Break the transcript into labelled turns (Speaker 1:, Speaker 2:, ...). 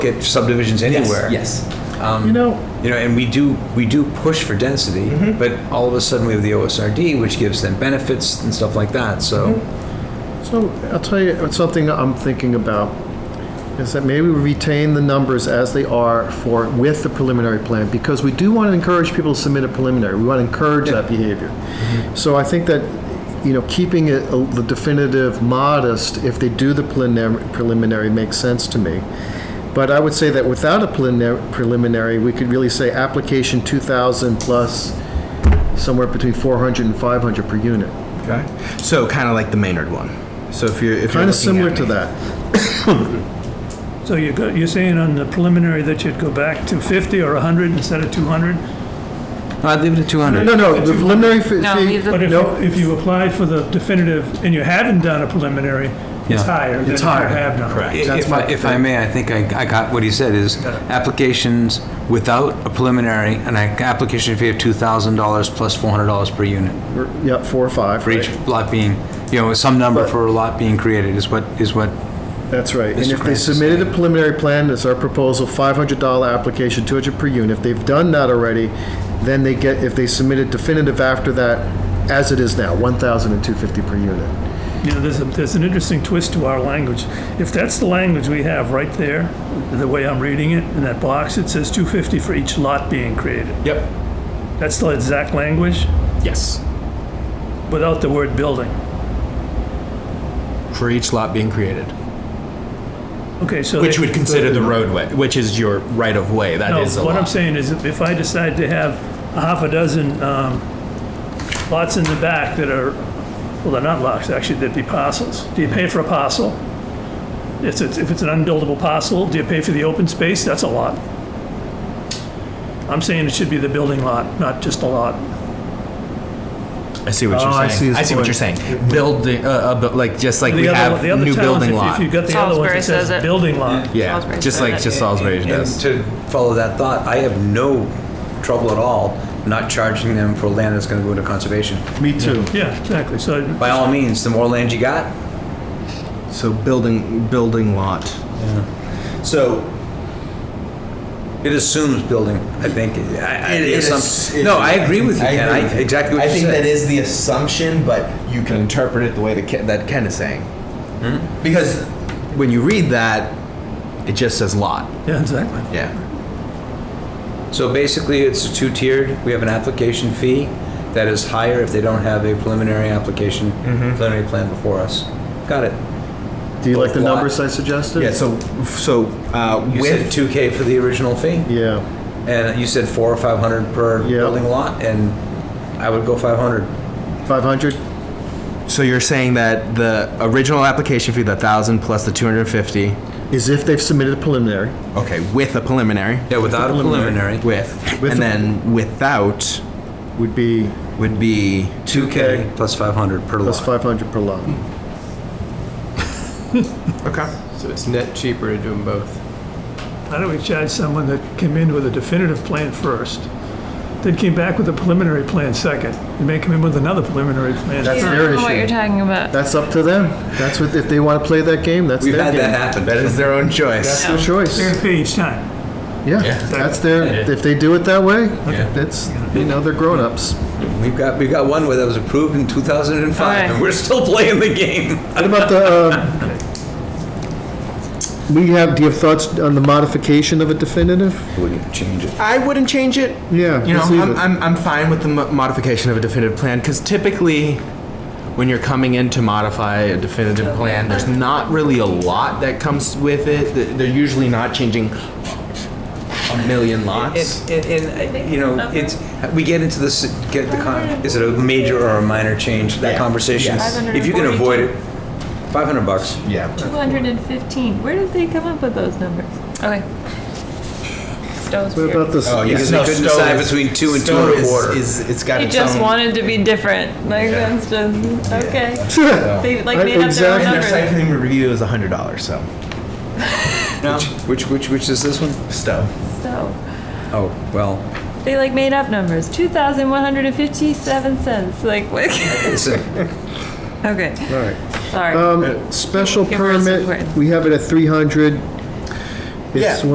Speaker 1: get subdivisions anywhere.
Speaker 2: Yes.
Speaker 1: You know. You know, and we do, we do push for density, but all of a sudden we have the OSRD, which gives them benefits and stuff like that, so.
Speaker 3: So I'll tell you, it's something I'm thinking about, is that maybe we retain the numbers as they are for, with the preliminary plan, because we do want to encourage people to submit a preliminary. We want to encourage that behavior. So I think that, you know, keeping it uh, the definitive modest, if they do the preliminary, preliminary makes sense to me. But I would say that without a preliminary- preliminary, we could really say application 2,000 plus somewhere between 400 and 500 per unit.
Speaker 2: Okay. So kind of like the Maynard one. So if you're if
Speaker 3: Kind
Speaker 2: you're
Speaker 3: of similar to that.
Speaker 4: So you go, you're saying on the preliminary that you'd go back to 50 or 100 instead of 200?
Speaker 1: I'd leave it at 200.
Speaker 3: No, no, the preliminary fee.
Speaker 5: No,
Speaker 3: fee-
Speaker 5: leave the-
Speaker 4: But if,
Speaker 3: No.
Speaker 4: you- if you apply for the definitive and you haven't done a preliminary, it's
Speaker 1: Yeah.
Speaker 4: higher than if
Speaker 3: It's
Speaker 4: you
Speaker 3: higher.
Speaker 4: have done.
Speaker 2: Correct.
Speaker 3: That's
Speaker 1: If
Speaker 3: my-
Speaker 1: I, if I may, I think I, I got what he said is applications without a preliminary, an application fee of two thousand dollars plus four hundred dollars per unit.
Speaker 3: Yeah, four or five.
Speaker 1: For each
Speaker 3: right.
Speaker 1: lot being, you know, some number
Speaker 3: But-
Speaker 1: for a lot being created is what, is what,
Speaker 3: That's right. And
Speaker 1: Mr.
Speaker 3: if they
Speaker 1: Francis.
Speaker 3: submitted a preliminary plan, it's our proposal, $500 application, 200 per unit. If they've done that already, then they get, if they submitted definitive after that, as it is now, 1,250 per unit.
Speaker 4: You know, there's, a, there's an interesting twist to our language. If that's the language we have right there, the way I'm reading it, in that box, it says 250 for each lot being created.
Speaker 2: Yep.
Speaker 4: That's the exact language
Speaker 2: Yes.
Speaker 4: without the word building.
Speaker 2: For each lot being created,
Speaker 4: Okay, so.
Speaker 2: which
Speaker 4: they-
Speaker 2: would consider the roadway, which is your right of way. That is
Speaker 4: No,
Speaker 2: a
Speaker 4: what
Speaker 2: lot.
Speaker 4: I'm saying is if I decide to have a half a dozen um, lots in the back that are, well, they're not lots, actually, they'd be parcels. Do you pay for a parcel? If it's, if it's an unbuildable parcel, do you pay for the open space? That's a lot. I'm saying it should be the building lot, not just a lot.
Speaker 2: I see what you're
Speaker 3: Oh, I
Speaker 2: saying.
Speaker 3: see his
Speaker 2: what
Speaker 3: point.
Speaker 2: you're saying. Building, uh, uh, but like just like
Speaker 4: The
Speaker 2: we
Speaker 4: other-
Speaker 2: have
Speaker 4: the other
Speaker 2: new
Speaker 4: towns,
Speaker 2: building
Speaker 4: if-
Speaker 2: lot.
Speaker 4: If you've got the other ones,
Speaker 5: Salisbury
Speaker 4: it
Speaker 5: says
Speaker 4: says
Speaker 5: it.
Speaker 4: building lot.
Speaker 2: yeah,
Speaker 5: Salisbury
Speaker 2: just
Speaker 5: said
Speaker 2: like
Speaker 5: it.
Speaker 2: just Salisbury
Speaker 1: and
Speaker 2: does.
Speaker 1: to follow that thought, I have no trouble at all not charging them for land that's gonna go into conservation.
Speaker 3: Me too.
Speaker 4: Yeah, exactly. So
Speaker 1: By all means, the more land you got,
Speaker 2: So building building lot.
Speaker 1: So it assumes building, I think. I- I-
Speaker 6: It-
Speaker 1: the
Speaker 6: it
Speaker 1: assump-
Speaker 6: is-
Speaker 1: No,
Speaker 6: it-
Speaker 1: I agree with you,
Speaker 6: I
Speaker 1: Ken.
Speaker 6: agree
Speaker 1: I,
Speaker 6: with you.
Speaker 1: exactly what
Speaker 6: I
Speaker 1: you
Speaker 6: think that
Speaker 1: said.
Speaker 6: is the assumption, but you can interpret it the way that Ken, that Ken is saying.
Speaker 2: Hmm?
Speaker 6: Because
Speaker 2: When you read that, it just says lot.
Speaker 4: Yeah, exactly.
Speaker 6: yeah,
Speaker 1: So basically, it's two-tiered. We have an application fee that is higher if they don't have a preliminary application,
Speaker 6: Mm-hmm.
Speaker 1: preliminary plan before us. Got it.
Speaker 3: Do you like the
Speaker 1: Both lot.
Speaker 3: numbers I suggested?
Speaker 2: Yeah. So so uh,
Speaker 1: You
Speaker 2: with
Speaker 1: said two K for the original fee,
Speaker 3: Yeah,
Speaker 1: and you said four or five hundred per
Speaker 3: Yeah.
Speaker 1: building lot, and I would go five hundred.
Speaker 3: 500?
Speaker 2: So you're saying that the original application fee, the thousand plus the two hundred and fifty,
Speaker 3: Is if they've submitted a preliminary.
Speaker 2: okay, with a preliminary,
Speaker 1: Yeah, without a preliminary,
Speaker 2: with,
Speaker 3: With
Speaker 2: and
Speaker 3: a-
Speaker 2: then without
Speaker 3: Would be
Speaker 2: would be
Speaker 1: two K plus five hundred per
Speaker 3: plus
Speaker 1: lot.
Speaker 3: 500 per lot.
Speaker 2: okay.
Speaker 7: So it's net cheaper to do them both.
Speaker 4: Why don't we charge someone that came in with a definitive plan first, then came back with a preliminary plan second, and may come in with another preliminary plan
Speaker 3: That's
Speaker 4: third?
Speaker 3: their
Speaker 5: I don't know what
Speaker 3: issue.
Speaker 5: you're talking about.
Speaker 3: That's up to them. That's what, if they want to play that game, that's
Speaker 1: We've
Speaker 3: their
Speaker 1: had
Speaker 3: game.
Speaker 1: that happen.
Speaker 2: That is their own choice.
Speaker 3: Their choice.
Speaker 4: They're gonna pay each time.
Speaker 3: Yeah, that's their, if they do it that way, that's, you know, they're grown-ups.
Speaker 1: We've got, we've got one where that was approved in 2005,
Speaker 5: Alright.
Speaker 1: and we're still playing the game.
Speaker 3: What about the, um, we have, do you have thoughts on the modification of a definitive?
Speaker 1: Wouldn't change it.
Speaker 2: I wouldn't change it.
Speaker 3: Yeah,
Speaker 2: You know,
Speaker 3: let's leave
Speaker 2: I'm,
Speaker 3: it.
Speaker 2: I'm, I'm fine with the mo- modification of a definitive plan because typically, when you're coming in to modify a definitive plan, there's not really a lot that comes with it. Th- They're usually not changing a million lots.
Speaker 1: And, and, and, uh, you know, it's, we get into this, get the, con- is it a major or a minor change, that
Speaker 2: Yeah.
Speaker 1: conversation?
Speaker 2: Yes.
Speaker 1: If you can avoid it, 500 bucks.
Speaker 2: Yeah.
Speaker 5: 215. Where did they come up with those numbers? Okay.
Speaker 3: What
Speaker 5: Stowe's weird.
Speaker 3: about this,
Speaker 1: Oh, Because they
Speaker 6: No, Stowe
Speaker 1: couldn't decide
Speaker 6: is-
Speaker 1: between two and two
Speaker 6: Stowe
Speaker 1: and a
Speaker 6: is-
Speaker 1: quarter.
Speaker 6: Is, it's got
Speaker 5: They
Speaker 6: its
Speaker 5: just
Speaker 6: own-
Speaker 5: wanted to be different. Like that's just okay. They like
Speaker 3: Right,
Speaker 5: made up their
Speaker 3: exactly.
Speaker 5: own
Speaker 6: And their site
Speaker 5: numbers.
Speaker 6: plan review is hundred dollars. So
Speaker 1: Which, which, which is this one?
Speaker 6: Stowe.
Speaker 5: So
Speaker 1: Oh, well,
Speaker 5: they like made up numbers. Two thousand one hundred and fifty-seven cents. Like what?
Speaker 1: it's a-
Speaker 5: okay. Sorry.
Speaker 3: um, special
Speaker 5: Give her some
Speaker 3: permit,
Speaker 5: credit.
Speaker 3: we have it at three hundred.
Speaker 6: Yeah.
Speaker 3: It's